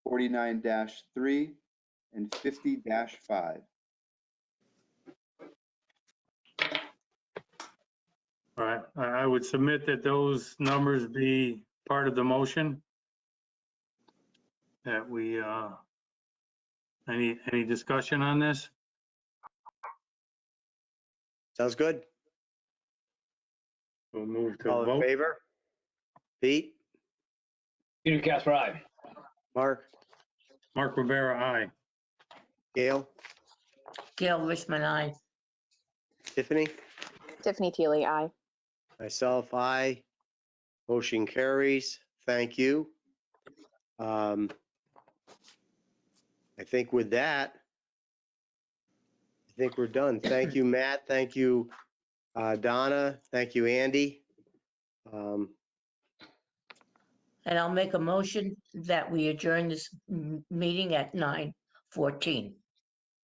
forty-nine three, and fifty five. All right, I I would submit that those numbers be part of the motion. That we, uh, any, any discussion on this? Sounds good. We'll move to All in vote. favor? Pete, Peter Casper, aye. Mark, Mark Rivera, aye. Gail, Gail Richmond, aye. Tiffany, Tiffany Teely, aye. myself, I. Motion carries. Thank you. Um, I think with that, I think we're done. Thank you, Matt. Thank you, uh, Donna. Thank you, Andy. Um, And I'll make a motion that we adjourn this m- meeting at 9:14.